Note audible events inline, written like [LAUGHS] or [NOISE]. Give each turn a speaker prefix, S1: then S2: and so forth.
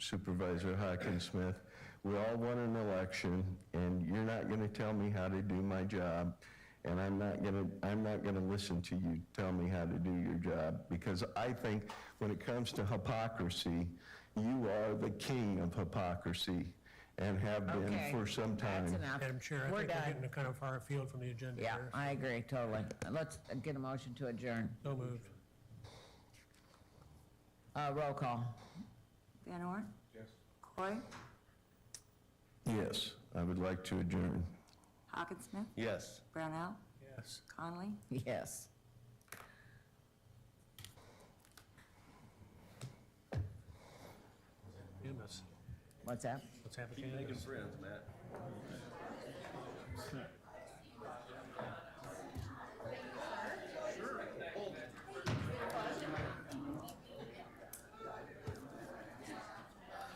S1: Supervisor Hawkins-Smith, we all won an election, and you're not going to tell me how to do my job, and I'm not going to, I'm not going to listen to you tell me how to do your job, because I think when it comes to hypocrisy, you are the king of hypocrisy and have been
S2: Okay,
S1: for some time.
S2: That's enough.
S3: Madam Chair, I
S2: We're
S3: think we're
S2: done.
S3: getting kind of far afield from the agenda
S2: Yeah,
S3: here.
S2: I agree, totally. Let's get a motion to adjourn.
S3: So moved.
S2: Uh, roll call. [LAUGHS]
S4: Van Orn? Yes. Coy?
S1: Yes, I would like to adjourn.
S4: Hawkinsmith?
S1: Yes.
S4: Brownell?
S3: Yes.
S4: Conley?
S2: Yes.
S3: Unanimous.
S2: What's that?
S3: Let's have a candidate.
S5: friends, Matt.